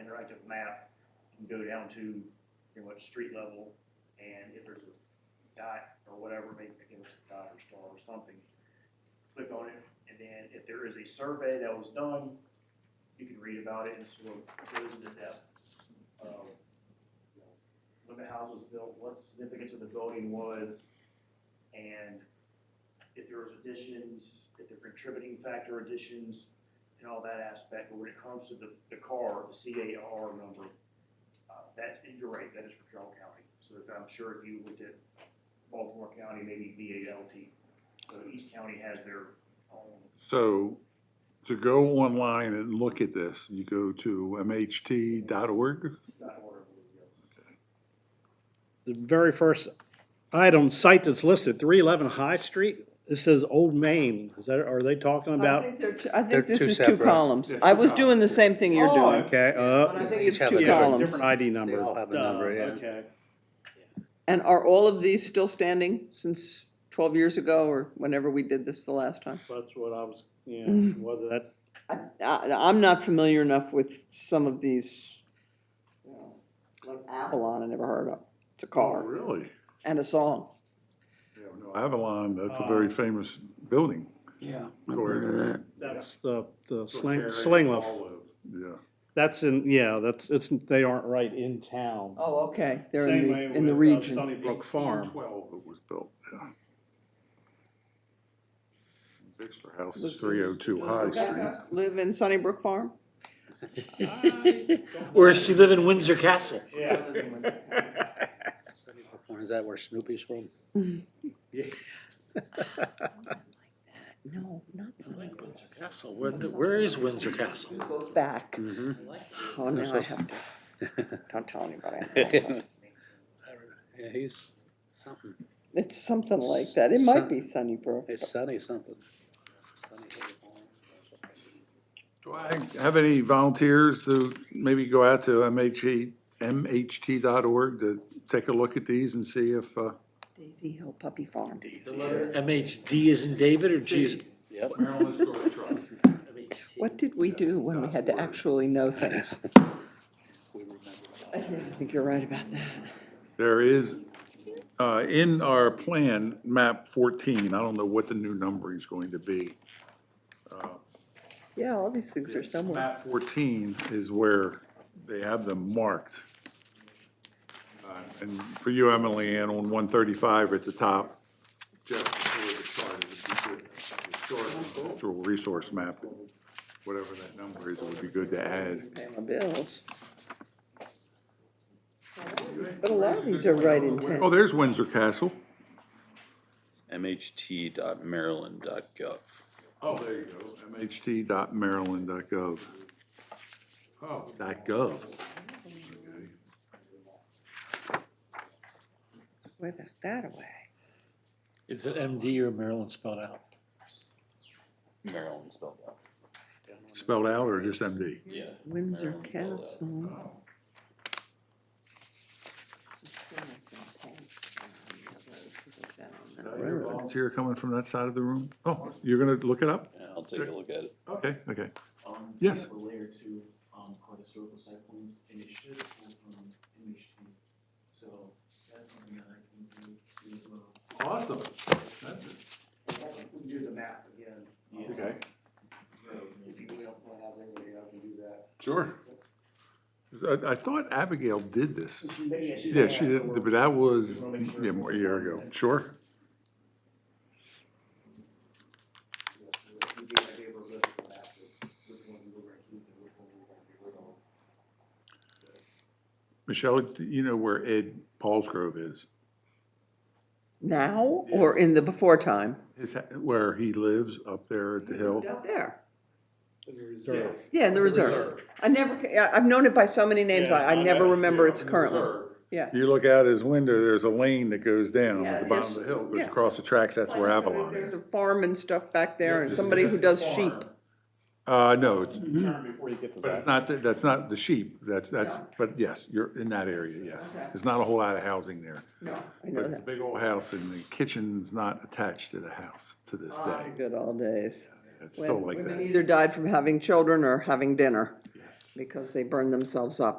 interactive map can go down to pretty much street level, and if there's a dot or whatever, maybe again, it's a dot or star or something, click on it, and then if there is a survey that was done, you can read about it and sort of goes into depth of, you know, when the house was built, what significance of the building was, and if there was additions, if there were contributing factor additions, and all that aspect, but when it comes to the, the CAR, the CAR number, uh, that's, and you're right, that is for Carroll County. So if- I'm sure if you looked at Baltimore County, maybe BALT, so each county has their own So to go online and look at this, you go to mht.org? dot order. I believe, yes. the very first item, site that's listed, three eleven High Street, it says Old Maine, is that, are they talking I about? think they're two- I They're think this two is two separate. columns. Yes, I two was doing the columns. same thing you're Oh, doing. Okay, But I uh, think Each it's have two a different- columns. different ID number. all have a Duh, number, yeah. Okay, And are all of these still standing since twelve years ago or whenever we did this the last time? that's what I was, yeah, Mm-hmm. whether that, I, I, I'm not familiar enough with some of these, you know, like Avalon, I never heard of. It's a Oh, car Really? and a song. Yeah, no, Avalon, that's a very famous building. Yeah. Correct. that's the, the sling, Carry Slingloff, all of- Yeah. that's in, yeah, that's, it's, they aren't right in town. Oh, okay, they're in Same the, way in the with, uh, region. Sunnybrook Farm. 1812 it was built, yeah. Bixler House is 302 High Street. Live in Sunnybrook Farm? Or does she live in Windsor Castle? Yeah. Is that where Snoopy's from? No, not Sunnybrook. Windsor Castle, where, where is Windsor Castle? Goes back. Mhm. Oh, now I have to, don't tell anybody. Yeah, he's something. It's something like that. It might be Sunnybrook. It's Sunny something. Do I have any volunteers to maybe go out to MHT, mht.org to take a look at these and see if, uh, Daisy Hill Puppy Farm. The letter MHD is in David or G? is- Yep. Maryland Historic Trust. MHD. What did we do when we had to actually know things? We remember. I think you're right about that. There is, uh, in our plan, map 14, I don't know what the new numbering is going to be. Yeah, all these things are somewhere. Map 14 is where they have them marked. Uh, And for you, Emily Ann, on 135 at the top, just before the chart, it would be good. the chart, Cultural resource map, whatever that number is, it would be good to add. Pay my bills. But a lot of these are right in Oh, town. there's Windsor Castle. mht.maryland.gov. Oh, there you go. mht.maryland.gov. Oh. Dot gov. Okay. Way back that away. Is it MD or Maryland spelled out? Maryland spelled out. Spelled out or just MD? Yeah. Windsor Maryland's spelled out. Castle. Oh. You're a Volunteer coming from that side of the room? Oh, you're gonna look it up? Yeah, I'll take a look at it. Okay, okay. Um, Yes. we have A layer two, um, called historical site points, and it should pull from MHT. So that's something that I can do do as well. Awesome. We can do the map again. Okay, So If you don't have anybody, I can do that. sure. I, I thought Abigail did this. Maybe I should Yeah, she ask did, her. but that was, yeah, more a year ago. Sure. We gave- I gave her a list of maps of which one we were gonna keep and which one we were gonna get rid of. Michelle, do you know where Ed Paulsgrove is? Now or in the before time? His, ha- where he lives up there at the hill? Up there. Yes. Yeah, in the reserve. I never, ca- I- I've known it by so many names, I, I never remember its current one. Yeah. You look out his window, there's a lane that goes down Yeah, at the bottom yes, of the hill, goes yeah. across the tracks, that's where Like, Avalon There's is. a farm and stuff back there and just- somebody who just does sheep. Uh, no, it's, Before you get to but it's not, the- that's not the sheep, that's, that's, but yes, you're in that area, yes. There's not a whole lot of housing there. No, I know But it's a that. big old house and the kitchen's not attached to the house to this day. Ah, Good old days. It's still When like Women that. either died from having children or having dinner. Yes. because they burn themselves up.